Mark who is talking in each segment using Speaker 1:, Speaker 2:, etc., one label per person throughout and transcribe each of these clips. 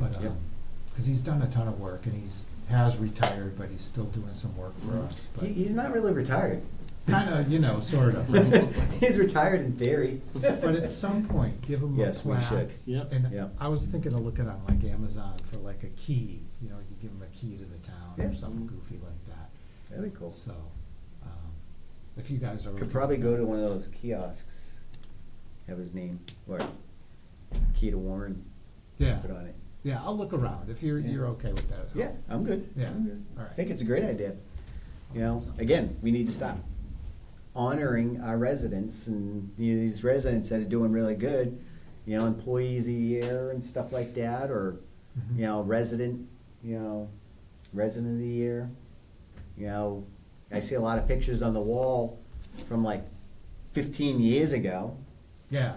Speaker 1: Yep.
Speaker 2: Because um, he's done a ton of work and he's, has retired, but he's still doing some work for us. But
Speaker 1: Mm-hmm. He, he's not really retired.
Speaker 2: Kind of, you know, sort of. right?
Speaker 1: he's retired in theory.
Speaker 2: But at some point, give him a
Speaker 1: Yes, we
Speaker 2: plaque.
Speaker 1: should.
Speaker 3: Yep.
Speaker 2: And
Speaker 1: Yep.
Speaker 2: I was thinking of looking on like Amazon for like a key, you know, you give him a key to the town or
Speaker 1: Yeah.
Speaker 2: something goofy like that.
Speaker 1: That'd be cool.
Speaker 2: So, um, if you guys are. okay
Speaker 1: Could probably
Speaker 2: with
Speaker 1: go
Speaker 2: that.
Speaker 1: to one of those kiosks, have his name or key to Warren
Speaker 2: Yeah,
Speaker 1: put on it.
Speaker 2: yeah, I'll look around if you're,
Speaker 1: Yeah.
Speaker 2: you're okay with that.
Speaker 1: Yeah, I'm good.
Speaker 2: Yeah,
Speaker 1: I'm good.
Speaker 2: all right.
Speaker 1: I think it's a great idea. You know,
Speaker 2: Awesome.
Speaker 1: again, we need to stop honoring our residents and you know, these residents that are doing really good, you know, employees a year and stuff like that, or,
Speaker 2: Mhm.
Speaker 1: you know, resident, you know, resident of the year. You know, I see a lot of pictures on the wall from like fifteen years ago,
Speaker 2: Yeah,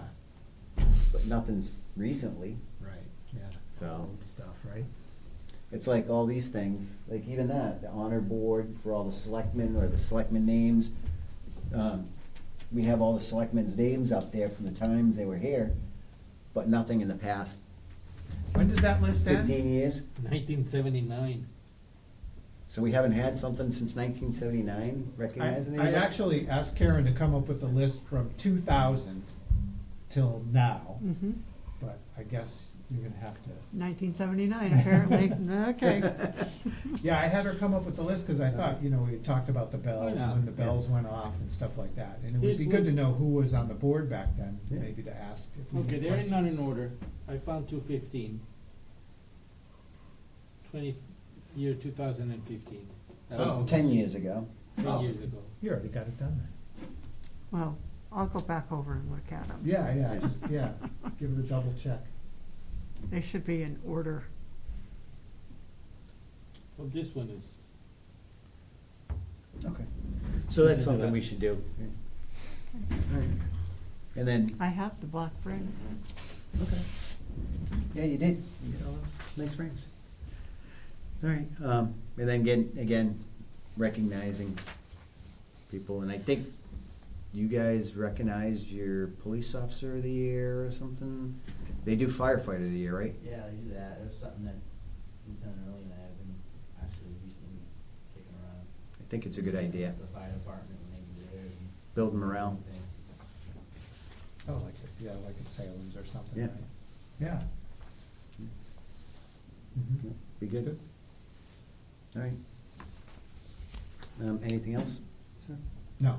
Speaker 1: but nothing's recently.
Speaker 2: right, yeah.
Speaker 1: So-
Speaker 2: Old Stuff, right?
Speaker 1: It's like all these things, like even that, the honor board for all the selectmen or the selectmen names. Um, We have all the selectmen's names up there from the times they were here, but nothing in the past
Speaker 2: When does that list end?
Speaker 1: fifteen years.
Speaker 3: Nineteen seventy-nine.
Speaker 1: So we haven't had something since nineteen seventy-nine
Speaker 2: I,
Speaker 1: recognizing
Speaker 2: I
Speaker 1: anybody?
Speaker 2: actually asked Karen to come up with a list from two thousand till now,
Speaker 4: Mm-hmm.
Speaker 2: but I guess you're gonna have to.
Speaker 4: 1979, apparently. okay.
Speaker 2: Yeah, I had her come up with the list, cause I thought, you know, we had talked about the bells,
Speaker 3: Yeah.
Speaker 2: when the bells went off and stuff like that, and it would
Speaker 3: Here's
Speaker 2: be good
Speaker 3: what-
Speaker 2: to know who was on the board back then,
Speaker 1: Yeah.
Speaker 2: maybe to ask if we.
Speaker 3: Okay,
Speaker 2: had
Speaker 3: they're not
Speaker 2: questions.
Speaker 3: in order. I found two fifteen. Twenty, year two thousand and fifteen. That
Speaker 1: So
Speaker 3: was
Speaker 2: Oh.
Speaker 1: it's ten years ago.
Speaker 3: ten
Speaker 2: Oh.
Speaker 3: years ago.
Speaker 2: You already got it done then.
Speaker 4: Well, I'll go back over and look at them.
Speaker 2: Yeah, yeah, just, yeah, give it a double check.
Speaker 4: They should be in order.
Speaker 3: Well, this one is,
Speaker 1: Okay. So
Speaker 3: This
Speaker 1: that's
Speaker 3: is the
Speaker 1: something
Speaker 3: last-
Speaker 1: we should do. All right. And then,
Speaker 4: I have the black frames.
Speaker 1: okay. Yeah, you did. You did all those nice rings. All right, um, and then again, again, recognizing people, and I think you guys recognize your police officer of the year or something. They do firefighter of the year, right?
Speaker 5: Yeah, I do that. It was something that Lieutenant Early and I have been actually recently kicking around.
Speaker 1: I think it's a good idea.
Speaker 5: The fire department when they do theirs and.
Speaker 1: Build morale.
Speaker 5: Thing.
Speaker 2: Oh, like, it- yeah, like at Salem's or something,
Speaker 1: Yeah.
Speaker 2: right? Yeah. Mhm.
Speaker 1: Be good? All right. Um, anything else, sir?
Speaker 2: No,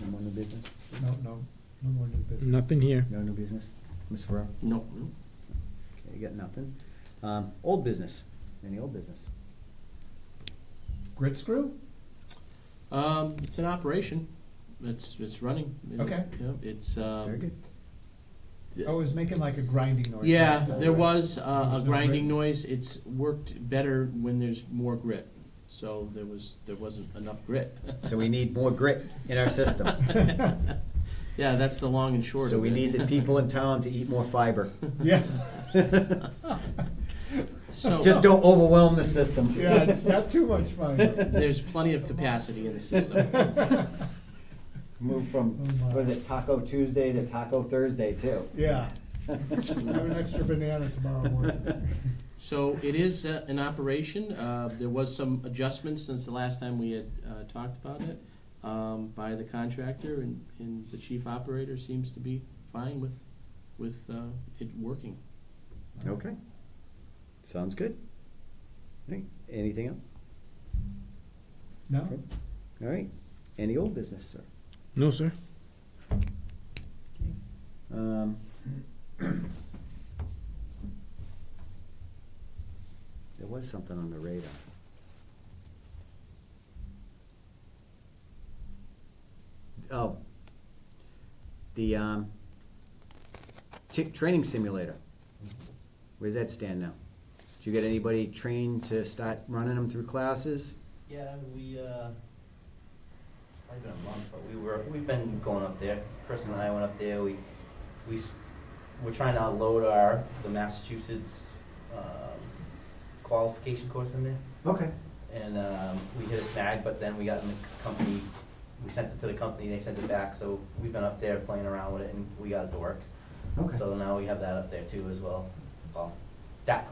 Speaker 1: No more new business?
Speaker 2: no, no, no more new business.
Speaker 3: Nothing here.
Speaker 1: No new business? Ms. Ferraro?
Speaker 6: No.
Speaker 1: Okay, you got nothing. Um, old business, any old business?
Speaker 2: Grit screw?
Speaker 6: Um, it's an operation. It's it's running.
Speaker 2: Okay.
Speaker 6: Yep, it's um,
Speaker 1: Very good.
Speaker 2: Oh, it was making like a grinding noise.
Speaker 6: Yeah,
Speaker 2: last time,
Speaker 6: there
Speaker 2: right?
Speaker 6: was uh,
Speaker 2: There's
Speaker 6: a
Speaker 2: no
Speaker 6: grinding
Speaker 2: grit?
Speaker 6: noise. It's worked better when there's more grit. So there was there wasn't enough grit.
Speaker 1: So we need more grit in our system.
Speaker 6: yeah, that's the long and short.
Speaker 1: So
Speaker 6: of
Speaker 1: we
Speaker 6: it.
Speaker 1: need the people in town to eat more fiber.
Speaker 2: Yeah,
Speaker 3: Oh,
Speaker 6: so
Speaker 1: Just don't overwhelm the system.
Speaker 2: yeah, not too much fun.
Speaker 6: There's plenty of capacity in the system.
Speaker 1: Move from,
Speaker 2: Oh, my.
Speaker 1: was it Taco Tuesday to Taco Thursday too?
Speaker 2: Yeah. Have an extra banana tomorrow morning.
Speaker 6: So it is uh, an operation. Uh, There was some adjustments since the last time we had uh, talked about it um, by the contractor, and, and the chief operator seems to be fine with, with uh, it working.
Speaker 1: Okay. Sounds good. All right, Anything else?
Speaker 2: No?
Speaker 1: All right, any old business, sir?
Speaker 3: No, sir.
Speaker 1: Um, There was something on the radar. Oh. The, um, ti- training simulator. Where's that stand now? Do you get anybody trained to start running them through classes?
Speaker 5: Yeah, we, uh, it's probably been a month, but we were, we've been going up there. Chris and I went up there. We, we, s- we're trying to load our, the Massachusetts, um, qualification course in there.
Speaker 1: Okay.
Speaker 5: and um, we hit a snag, but then we got in the company, we sent it to the company, they sent it back, so we've been up there playing around with it, and we got it to work.
Speaker 1: Okay.
Speaker 5: So now we have that up there too as well, well, that